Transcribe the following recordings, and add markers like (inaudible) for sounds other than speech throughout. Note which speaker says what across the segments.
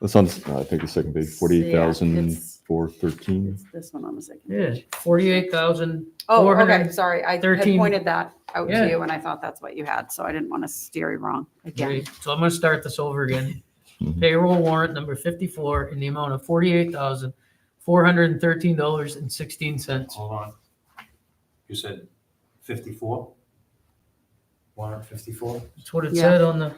Speaker 1: That's on, I think, the second page,
Speaker 2: Yeah,
Speaker 1: forty-eight thousand
Speaker 2: it's-
Speaker 1: four thirteen.
Speaker 2: It's this one on the second.
Speaker 3: Yeah, forty-eight thousand.
Speaker 2: Oh, okay, sorry. I had
Speaker 3: 413.
Speaker 2: pointed that out
Speaker 3: Yeah.
Speaker 2: to you and I thought that's what you had, so I didn't want to steer you wrong again.
Speaker 3: So I'm gonna start this over again.
Speaker 2: Mm-hmm.
Speaker 1: Mhm.
Speaker 3: Payroll warrant number fifty-four in the amount of forty-eight thousand, four hundred and thirteen dollars and sixteen cents.
Speaker 4: Hold on. You said fifty-four? Warrant fifty-four?
Speaker 3: That's what it
Speaker 2: Yeah.
Speaker 3: said on the,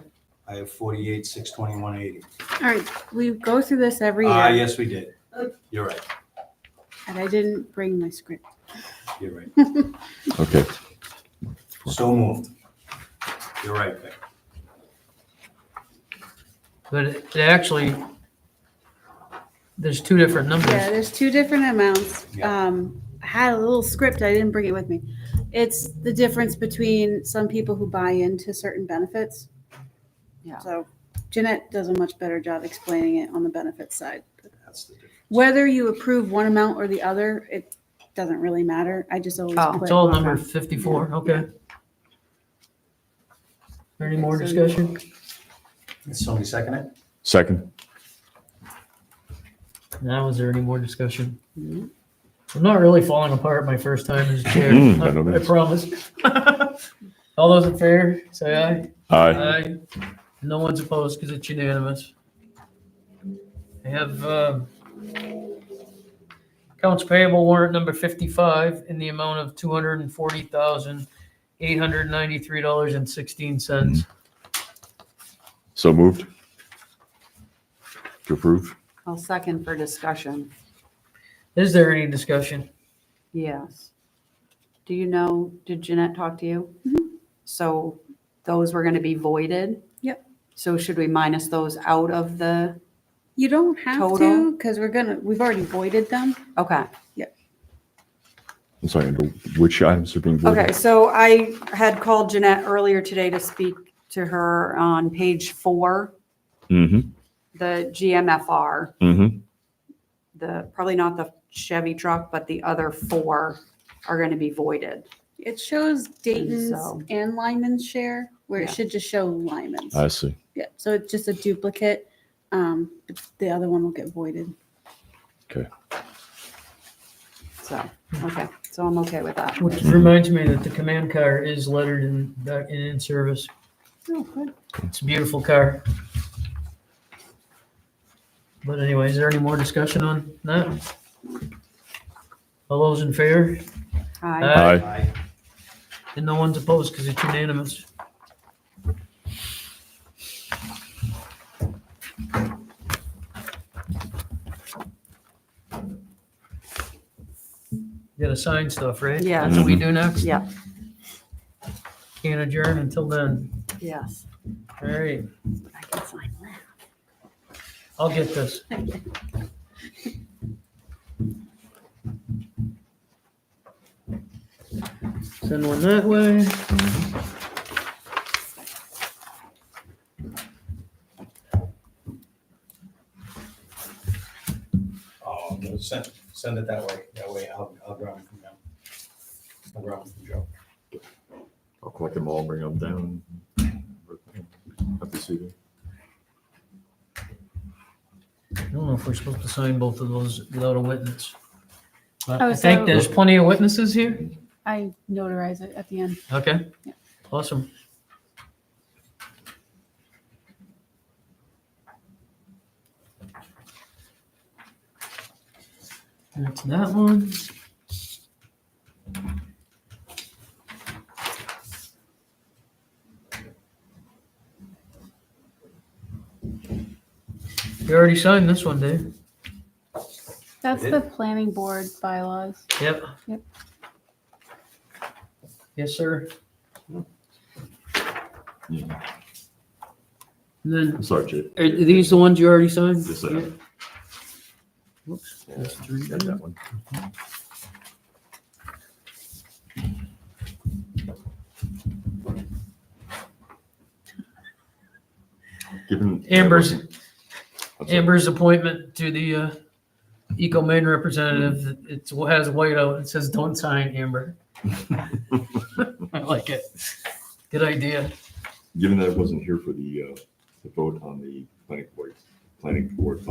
Speaker 4: I have forty-eight, six twenty-one eighty.
Speaker 2: All right, we go through this every
Speaker 4: Ah,
Speaker 2: year
Speaker 4: yes, we did. You're right,
Speaker 2: and I didn't bring my script.
Speaker 4: you're right.
Speaker 1: Okay,
Speaker 4: So moved. You're right, Vic.
Speaker 3: but it it actually, there's two different
Speaker 2: Yeah,
Speaker 3: numbers.
Speaker 2: there's two different amounts.
Speaker 4: Yeah.
Speaker 2: Um, I had a little script, I didn't bring it with me. It's the difference between some people who buy into certain benefits.
Speaker 5: Yeah.
Speaker 2: So Jeanette does a much better job explaining it on the benefit side.
Speaker 4: That's the difference.
Speaker 2: Whether you approve one amount or the other, it doesn't really matter. I just always
Speaker 5: Oh.
Speaker 2: put.
Speaker 3: It's all number fifty-four, okay. Any more
Speaker 2: So-
Speaker 3: discussion?
Speaker 4: Did Somebody second it?
Speaker 1: second,
Speaker 3: Now, is there any more discussion?
Speaker 2: No.
Speaker 3: I'm not really falling apart my first time as chair,
Speaker 1: Mm, I don't know.
Speaker 3: I I promise. (laughs) All those in favor, say aye.
Speaker 1: aye.
Speaker 3: No one's opposed because it's unanimous. I have, um, accounts payable warrant number fifty-five in the amount of two hundred and forty thousand, eight hundred ninety-three dollars and sixteen cents.
Speaker 1: So moved. To approve?
Speaker 5: I'll second for discussion.
Speaker 3: Is there any discussion?
Speaker 5: Yes. Do you know, did Jeanette talk to you? So those were going to be voided?
Speaker 2: Yep.
Speaker 5: So should we minus those out of the,
Speaker 2: You don't have to,
Speaker 5: Total?
Speaker 2: because we're gonna, we've already voided them.
Speaker 5: okay.
Speaker 1: I'm sorry, under which items are
Speaker 3: Mm.
Speaker 1: being
Speaker 5: Okay,
Speaker 1: voted?
Speaker 5: so I had called Jeanette earlier today to speak to her on page four,
Speaker 1: Mm-hmm,
Speaker 5: the GMFR,
Speaker 1: mm-hmm.
Speaker 5: the, probably not the Chevy truck, but the other four are going to be voided.
Speaker 2: It shows
Speaker 5: so-
Speaker 2: Dayton's and Lyman's share, where it
Speaker 5: Yeah.
Speaker 2: should just show Lyman's.
Speaker 1: I see.
Speaker 2: Yeah, so it's just a duplicate. Um, but the other one will get voided.
Speaker 5: So, okay, so I'm okay with that.
Speaker 3: Which reminds me that the command car is lettered in, in, in service.
Speaker 2: Oh, good.
Speaker 3: It's a beautiful car. But anyway, is there any more discussion on that? All those in favor?
Speaker 5: Hi.
Speaker 1: Uh,
Speaker 3: Aye.
Speaker 4: Aye.
Speaker 3: And no one's opposed because it's unanimous. You gotta sign stuff, right?
Speaker 5: Yeah.
Speaker 3: That's what we do next?
Speaker 5: Yeah.
Speaker 3: Can't adjourn until then.
Speaker 5: Yes.
Speaker 3: All right,
Speaker 2: I can sign that.
Speaker 3: I'll get this. Send one that way.
Speaker 4: Oh, no, send, send it that way, that way I'll, I'll grab it from them. I'll grab it from Joe.
Speaker 1: I'll collect them all, bring them down. Have to see them.
Speaker 3: I don't know if we're supposed to sign both of those without a witness. But
Speaker 2: Oh,
Speaker 3: I think
Speaker 2: so-
Speaker 3: there's plenty of witnesses here.
Speaker 2: I notarize it at the end.
Speaker 3: Okay.
Speaker 2: Yeah.
Speaker 3: Awesome. That's that one. You already signed this one, Dave.
Speaker 2: That's
Speaker 4: It
Speaker 2: the planning board bylaws.
Speaker 3: Yep.
Speaker 2: Yep.
Speaker 3: Yes, sir.
Speaker 1: Yeah.
Speaker 3: And then,
Speaker 1: Sorry, Jay.
Speaker 3: are these the ones you already signed?
Speaker 1: Yes, sir.
Speaker 3: Yeah. Whoops, that's three.
Speaker 1: Got that one. Given.
Speaker 3: Amber's,
Speaker 1: I'm sorry.
Speaker 3: Amber's appointment to the, uh, Eco Maine representative, it's, it has white out, it says, don't sign, Amber. (laughs) I like it. Good idea.
Speaker 1: Given that I wasn't here for the, uh, the vote on the planning board, planning board